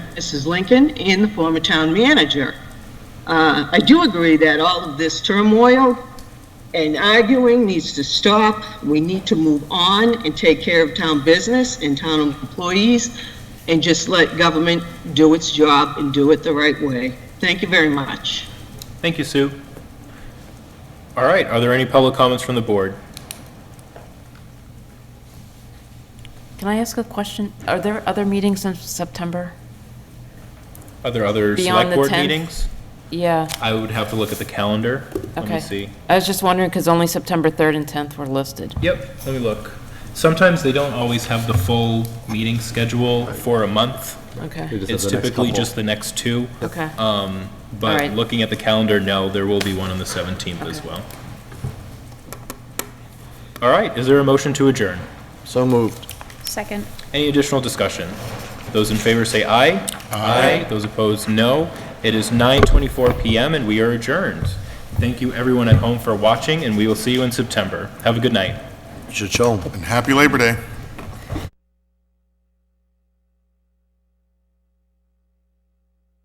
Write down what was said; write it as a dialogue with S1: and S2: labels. S1: Mrs. Lincoln and the former town manager. Uh, I do agree that all of this turmoil and arguing needs to stop. We need to move on and take care of town business and town employees and just let government do its job and do it the right way. Thank you very much.
S2: Thank you, Sue. All right, are there any public comments from the board?
S3: Can I ask a question? Are there other meetings in September?
S2: Are there other
S3: Beyond
S2: select
S3: the
S2: board
S3: 10th?
S2: meetings?
S3: Yeah,
S2: I would have to look at the calendar. Let
S3: okay.
S2: me see.
S3: I was just wondering, because only September 3rd and 10th were listed.
S2: Yep, let me look. Sometimes they don't always have the full meeting schedule for a month.
S3: Okay,
S2: It's typically just the next two.
S3: okay.
S2: Um, But
S3: Alright.
S2: looking at the calendar, no, there will be one on the 17th as
S3: Okay.
S2: well. All right, is there a motion to adjourn?
S4: So moved.
S5: Second.
S2: Any additional discussion? Those in favor say aye. Aye. Those opposed, no. It is 9:24 PM and we are adjourned. Thank you everyone at home for watching and we will see you in September. Have a good night.
S4: Should show 'em.
S6: And happy Labor Day.